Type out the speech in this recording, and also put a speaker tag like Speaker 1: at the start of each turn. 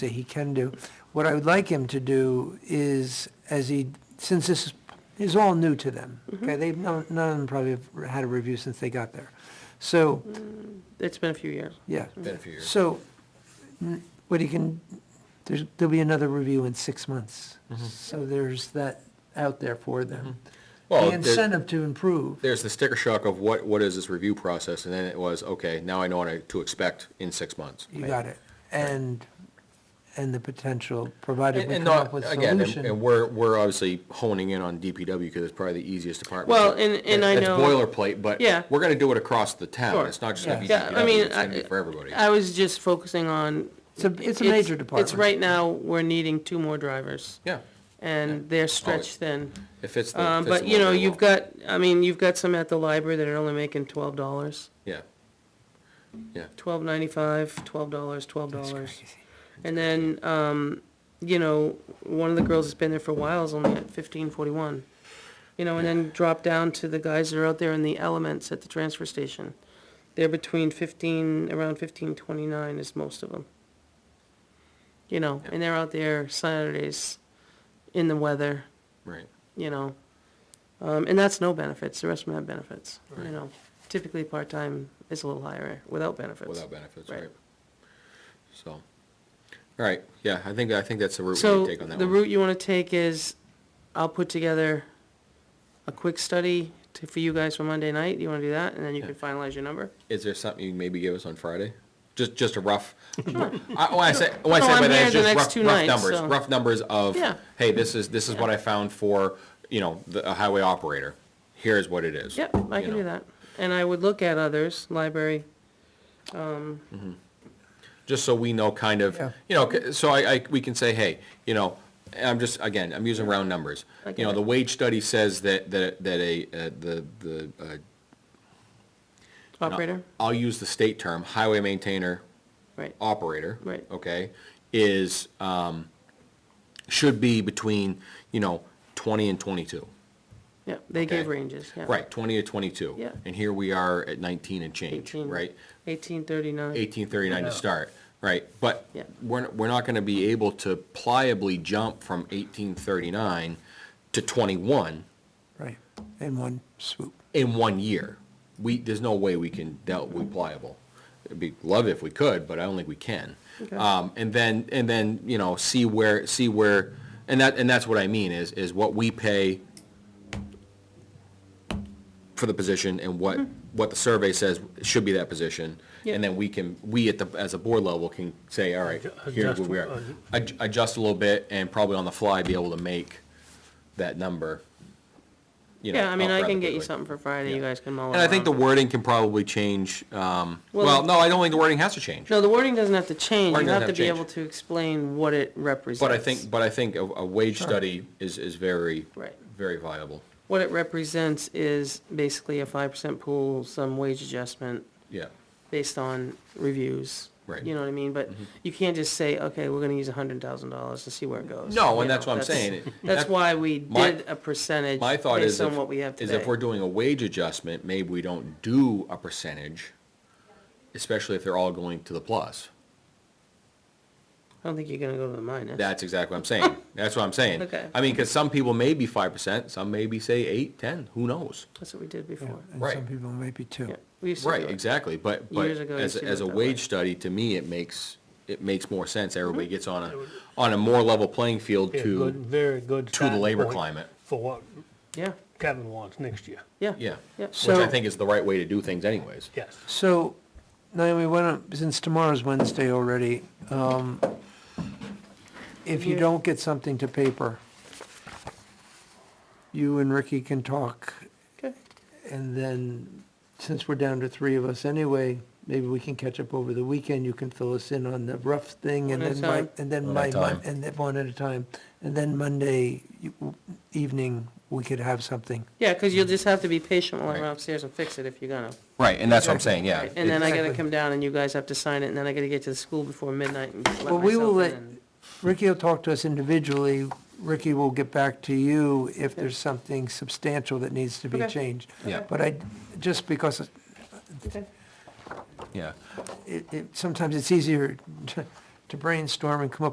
Speaker 1: that he can do. What I would like him to do is, as he, since this is all new to them, okay, they've, none none of them probably have had a review since they got there. So,
Speaker 2: It's been a few years.
Speaker 1: yeah.
Speaker 3: Been a few years.
Speaker 1: So, n- what he can, there's, there'll be another review in six months. So there's that out there for them.
Speaker 3: Well,
Speaker 1: The
Speaker 3: there-
Speaker 1: incentive to improve.
Speaker 3: There's the sticker shock of what, what is this review process, and then it was, okay, now I know what to expect in six months.
Speaker 1: You got it. And, and the potential, provided
Speaker 3: And
Speaker 1: we
Speaker 3: and
Speaker 1: come up
Speaker 3: not,
Speaker 1: with a
Speaker 3: again, and- and
Speaker 1: solution.
Speaker 3: we're, we're obviously honing in on DPW because it's probably the easiest department.
Speaker 2: Well, and- and I know-
Speaker 3: It's boilerplate, but
Speaker 2: Yeah.
Speaker 3: we're gonna do it across the town.
Speaker 2: Sure.
Speaker 3: It's not just gonna be
Speaker 1: Yeah.
Speaker 2: Yeah, I mean,
Speaker 3: DPW, it's gonna
Speaker 2: I-
Speaker 3: be for everybody.
Speaker 2: I was just focusing on.
Speaker 1: It's a, it's a major department.
Speaker 2: It's right now, we're needing two more drivers,
Speaker 3: Yeah,
Speaker 2: and they're stretched thin.
Speaker 3: if it's the.
Speaker 2: Um,
Speaker 3: fits
Speaker 2: but,
Speaker 3: the
Speaker 2: you
Speaker 3: bill
Speaker 2: know,
Speaker 3: very
Speaker 2: you've
Speaker 3: well.
Speaker 2: got, I mean, you've got some at the library that are only making twelve dollars,
Speaker 3: Yeah. Yeah,
Speaker 2: twelve ninety-five, twelve dollars, twelve dollars.
Speaker 1: crazy.
Speaker 2: And then, um, you know, one of the girls that's been there for a while is only at fifteen forty-one. You know, and then drop down to the guys that are out there in the elements at the transfer station. They're between fifteen, around fifteen twenty-nine is most of them. You know, and they're out there Saturdays in the weather,
Speaker 3: right.
Speaker 2: you know. Um, and that's no benefits, the rest of them have benefits, you know. Typically, part-time is a little higher without benefits.
Speaker 3: Without benefits,
Speaker 2: Right.
Speaker 3: right? So, all right, yeah, I think, I think that's the route we
Speaker 2: So
Speaker 3: need to take on that
Speaker 2: the
Speaker 3: one.
Speaker 2: route you want to take is, I'll put together a quick study to, for you guys for Monday night. You want to do that, and then you can finalize your number.
Speaker 3: Is there something you can maybe give us on Friday? Just, just a rough, I, when I say, when I
Speaker 2: No,
Speaker 3: say by
Speaker 2: Oh, I'm
Speaker 3: that, it's
Speaker 2: here the
Speaker 3: just
Speaker 2: next
Speaker 3: rough,
Speaker 2: two
Speaker 3: rough
Speaker 2: nights,
Speaker 3: numbers,
Speaker 2: so-
Speaker 3: rough numbers of,
Speaker 2: Yeah.
Speaker 3: hey, this is, this is what I found for, you know, the a highway operator. Here's what it is.
Speaker 2: Yep, I
Speaker 3: you
Speaker 2: can
Speaker 3: know.
Speaker 2: do that. And I would look at others, library.
Speaker 3: just so we know kind of,
Speaker 1: Yeah.
Speaker 3: you know, c- so I, I, we can say, hey, you know, and I'm just, again, I'm using round numbers.
Speaker 2: I
Speaker 3: You know,
Speaker 2: get
Speaker 3: the
Speaker 2: it.
Speaker 3: wage study says that, that, that a, uh, the, the, uh.
Speaker 2: Operator,
Speaker 3: I'll use the state term, highway maintainer,
Speaker 2: right,
Speaker 3: operator.
Speaker 2: Right.
Speaker 3: Okay, is, um, should be between, you know, twenty and twenty-two.
Speaker 2: yeah, they gave
Speaker 3: Okay.
Speaker 2: ranges, yeah.
Speaker 3: Right, twenty to twenty-two.
Speaker 2: Yeah.
Speaker 3: And here we are at nineteen and change,
Speaker 2: 18
Speaker 3: right?
Speaker 2: Eighteen thirty-nine,
Speaker 3: eighteen thirty-nine to start, right? But
Speaker 2: Yeah.
Speaker 3: we're, we're not gonna be able to pliably jump from eighteen thirty-nine to twenty-one
Speaker 1: Right, in one swoop.
Speaker 3: in one year. We, there's no way we can, that would be pliable. It'd be, love it if we could, but I don't think we can.
Speaker 2: Okay.
Speaker 3: Um, and then, and then, you know, see where, see where, and that, and that's what I mean, is, is what we pay for the position and what, what the survey says should be that position.
Speaker 2: Mm-hmm. Yeah.
Speaker 3: And then we can, we at the, as a board level can say, all right, here's where we are. Ad- Adjust a little bit and probably on the fly be able to make that number. you know,
Speaker 2: yeah, I mean,
Speaker 3: up
Speaker 2: I
Speaker 3: rather
Speaker 2: can get you
Speaker 3: quickly.
Speaker 2: something for Friday, you
Speaker 3: Yeah.
Speaker 2: guys can mull it
Speaker 3: And I think the
Speaker 2: around.
Speaker 3: wording can probably change, um,
Speaker 2: Well,
Speaker 3: well, no, I don't think the wording has to change.
Speaker 2: No, the wording doesn't have to change,
Speaker 3: Wording
Speaker 2: you
Speaker 3: doesn't
Speaker 2: have to
Speaker 3: have
Speaker 2: be
Speaker 3: to
Speaker 2: able
Speaker 3: change.
Speaker 2: to explain what it represents.
Speaker 3: But I think, but I think a, a wage study is, is very,
Speaker 2: Right.
Speaker 3: very viable,
Speaker 2: What it represents is basically a five percent pool, some wage adjustment,
Speaker 3: yeah.
Speaker 2: based on reviews.
Speaker 3: Right. Mm-hmm.
Speaker 2: You know what I mean? But you can't just say, okay, we're gonna use a hundred thousand dollars to see where it goes.
Speaker 3: Mm-hmm. No,
Speaker 2: You
Speaker 3: and that's
Speaker 2: know,
Speaker 3: what I'm saying.
Speaker 2: That's
Speaker 3: That-
Speaker 2: why we
Speaker 3: My-
Speaker 2: did a percentage
Speaker 3: My thought is,
Speaker 2: based on
Speaker 3: if-
Speaker 2: what we have
Speaker 3: is
Speaker 2: today.
Speaker 3: if we're doing a wage adjustment, maybe we don't do a percentage, especially if they're all going to the plus.
Speaker 2: I don't think you're gonna go to the eh? minus.
Speaker 3: That's exactly what I'm saying. That's what I'm saying.
Speaker 2: Okay.
Speaker 3: I mean, because some people may be five percent, some may be, say, eight, ten, who knows?
Speaker 2: That's what we did
Speaker 1: Yeah,
Speaker 2: before.
Speaker 1: And
Speaker 3: Right.
Speaker 1: some people maybe two.
Speaker 2: Yeah, we used to do
Speaker 3: Right,
Speaker 2: it.
Speaker 3: exactly, but, but
Speaker 2: Years ago, I
Speaker 3: as,
Speaker 2: used to
Speaker 3: as
Speaker 2: do
Speaker 3: a
Speaker 2: it that
Speaker 3: wage
Speaker 2: way. Mm-hmm.
Speaker 3: study, to me, it makes, it makes more sense. Everybody gets on a, on a more level playing field
Speaker 4: Yeah, good,
Speaker 3: to,
Speaker 4: very good.
Speaker 3: to the
Speaker 4: starting
Speaker 3: labor
Speaker 4: point
Speaker 3: climate.
Speaker 4: For what
Speaker 2: Yeah,
Speaker 4: Kevin wants next year,
Speaker 2: yeah.
Speaker 3: Yeah,
Speaker 2: Yeah.
Speaker 3: which
Speaker 1: So-
Speaker 3: I think is the right way to do things anyways.
Speaker 4: yes.
Speaker 1: So, Naomi, why don't, since tomorrow's Wednesday already, um, if you
Speaker 2: Yeah.
Speaker 1: don't get something to paper, you and Ricky can talk,
Speaker 2: Okay,
Speaker 1: and then, since we're down to three of us anyway, maybe we can catch up over the weekend, you can fill us in on the rough thing, and
Speaker 2: One at
Speaker 1: then
Speaker 2: a
Speaker 1: my,
Speaker 2: time.
Speaker 1: and then
Speaker 3: One
Speaker 1: my,
Speaker 3: at a time.
Speaker 1: and then one at a time, and then Monday you- evening, we could have something.
Speaker 2: yeah, cause you'll just have to be patient while I'm
Speaker 3: Right.
Speaker 2: upstairs and fix it if you're gonna.
Speaker 3: Right, and that's what I'm saying, yeah.
Speaker 2: Right, And then I gotta
Speaker 1: Exactly.
Speaker 2: come down and you guys have to sign it, and then I gotta get to the school before midnight and let
Speaker 1: Well, we will
Speaker 2: myself in
Speaker 1: let-
Speaker 2: and-
Speaker 1: Ricky will talk to us individually. Ricky will get back to you if there's something substantial that needs to be
Speaker 2: Okay.
Speaker 1: changed.
Speaker 3: Yeah.
Speaker 1: But I, just because it-
Speaker 2: Okay.
Speaker 3: Yeah.
Speaker 1: it, it, sometimes it's easier to- to brainstorm and come up